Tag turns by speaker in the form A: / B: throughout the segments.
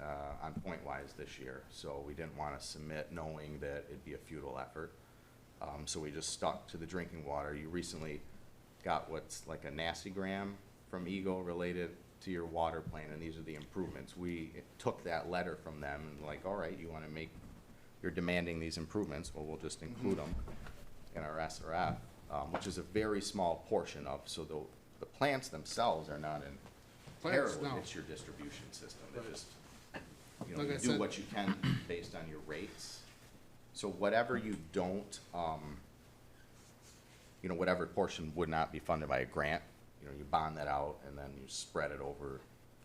A: uh, on point-wise this year. So we didn't want to submit knowing that it'd be a futile effort. Um, So we just stuck to the drinking water. You recently got what's like a nasty gram from Eagle related to your water plan, and these are the improvements. We took that letter from them and like, all right, you want to make, you're demanding these improvements, well, we'll just
B: Mm-hmm.
A: include them in our SRF, um, which is a very small portion of, so the, the plants themselves are not in
B: Plants,
A: peril.
B: no.
A: It's your distribution system. They just, you know,
B: Like
A: you
B: I
A: do
B: said-
A: what you can based on your rates. So whatever you don't, um, you know, whatever portion would not be funded by a grant, you know, you bond that out and then you spread it over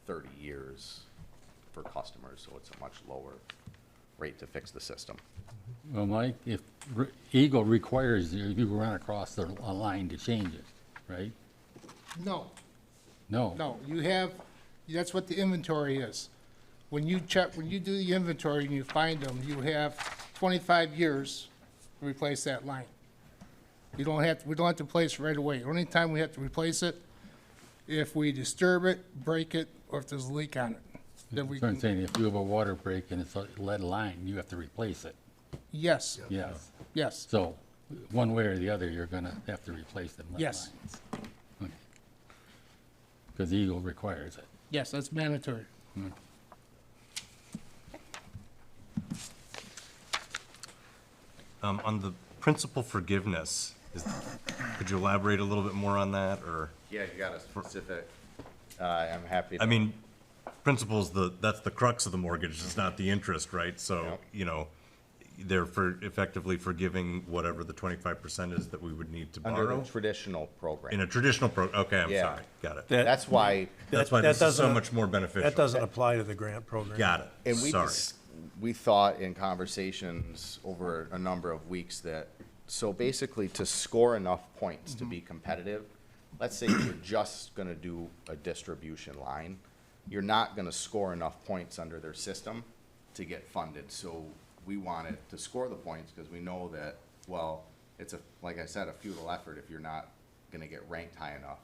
A: thirty years for customers, so it's a much lower rate to fix the system.
C: Well, Mike, if re- Eagle requires you you run across the a line to change it, right?
B: No,
C: No.
B: no, you have, that's what the inventory is. When you check, when you do the inventory and you find them, you have twenty-five years to replace that line. You don't have, we don't have to replace it right away. Only time we have to replace it, if we disturb it, break it, or if there's a leak on it, then we
C: That's what I'm
B: can,
C: saying, if you have a water break and it's a lead line, you have to replace it,
B: yes,
C: yes.
B: yes.
C: So, one way or the other, you're gonna have to replace them lead
B: Yes.
C: lines. Because Eagle requires it.
B: Yes, that's mandatory.
D: Um, On the principal forgiveness, is- could you elaborate a little bit more on that, or,
A: Yeah, you got a specific, uh, I'm happy. to-
D: I mean, principal's the, that's the crux of the mortgage, it's not the interest, right? So,
A: Yep.
D: you know, they're for, effectively forgiving whatever the twenty-five percent is that we would need to
A: Under the
D: borrow?
A: traditional
D: In
A: program.
D: a traditional pro, okay, I'm
A: Yeah.
D: sorry, got it.
E: That-
A: That's why,
D: That's why
E: that
D: this is so
E: doesn't-
D: much more beneficial.
E: That doesn't apply to the grant program.
D: Got it,
A: and we,
D: sorry.
A: dis- we thought in conversations over a number of weeks that, so basically to score enough points to be competitive, let's say you're just gonna do a distribution line, you're not gonna score enough points under their system to get funded. So we wanted to score the points because we know that, well, it's a, like I said, a futile effort if you're not gonna get ranked high enough.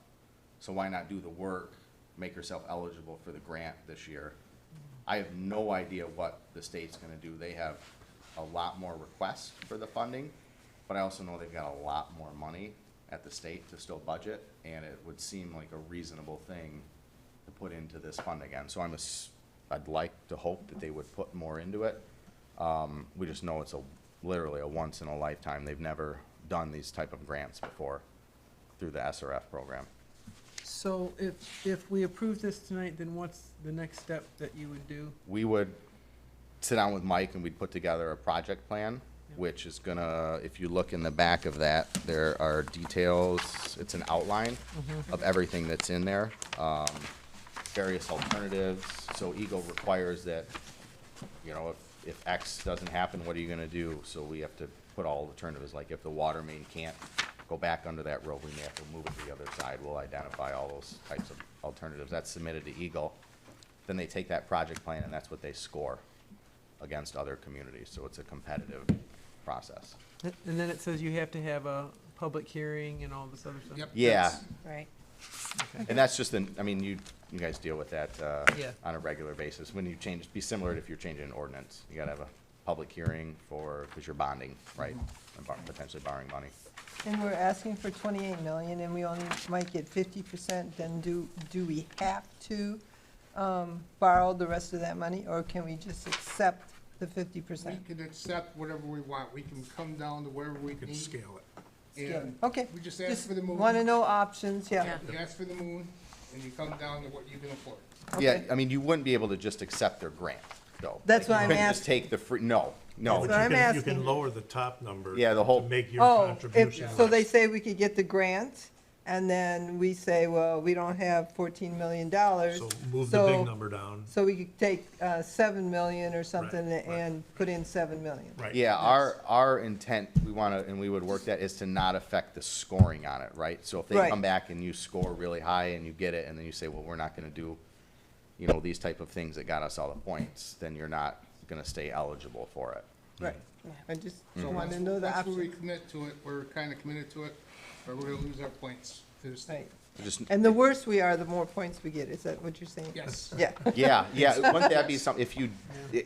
A: So why not do the work, make yourself eligible for the grant this year? I have no idea what the state's gonna do. They have a lot more requests for the funding, but I also know they've got a lot more money at the state to still budget, and it would seem like a reasonable thing to put into this fund again. So I'm, ass- I'd like to hope that they would put more into it. Um, we just know it's a, literally a once in a lifetime. They've never done these type of grants before through the SRF program.
F: So if, if we approve this tonight, then what's the next step that you would do?
A: we would sit down with Mike and we'd put together a project plan, which is gonna, if you look in the back of that, there are details, it's an outline of everything that's in there, um, various alternatives. So Eagle requires that, you know, if, if X doesn't happen, what are you gonna do? So we have to put all alternatives, like if the water main can't go back under that road, we may have to move it to the other side. We'll identify all those types of alternatives. That's submitted to Eagle then they take that project plan and that's what they score against other communities, so it's a competitive process.
F: And then it says you have to have a public hearing and all this other stuff.
B: Yep.
A: Yeah,
G: Right.
A: and that's just an, I mean, you, you guys deal with that, uh,
F: Yeah.
A: on a regular basis, when you change, be similar to if you're changing an ordinance, you gotta have a public hearing for, cause you're bonding, right?
G: Mm-hmm.
A: And bor- potentially borrowing money.
G: And we're asking for 28 million, and we only might get 50%, then do, do we have to um, borrow the rest of that money, or can we just accept the 50%?
B: We can accept whatever we want. We can come down to whatever we
E: You can
B: need.
E: scale it.
B: and
G: Okay.
B: We just ask for the moon.
G: Want to know options, yeah.
B: You ask for the moon, and you come down to what you can afford.
A: Yeah,
G: Okay.
A: I mean, you wouldn't be able to just accept their grant, though.
G: That's
A: Like,
G: what I'm
A: You couldn't just
G: ask-
A: take the free, no, no,
G: That's what I'm
E: You can- You
G: asking.
E: can lower the top number.
A: Yeah, the whole-
E: To make your
G: Oh, if,
E: contribution.
G: so they say we could get the grant, and then we say, well, we don't have 14 million dollars.
E: So move the big number down.
G: So we could take uh, 7 million or something
E: Right, right.
G: and put in 7 million.
E: Right.
A: Yeah, our, our intent, we want to, and we would work that, is to not affect the scoring on it, right? So if they
G: Right.
A: come back and you score really high and you get it, and then you say, well, we're not going to do, you know, these type of things that got us all the points, then you're not going to stay eligible for it.
G: Right. I just
B: So
G: want to
B: once-
G: know the
B: Once we
G: options.
B: commit to it, we're kind of committed to it, or we're gonna lose our points. There's,
G: Right.
A: I just-
G: And the worse we are, the more points we get. Is that what you're saying?
B: Yes.
G: Yeah.
A: Yeah, yeah, wouldn't that be something, if you,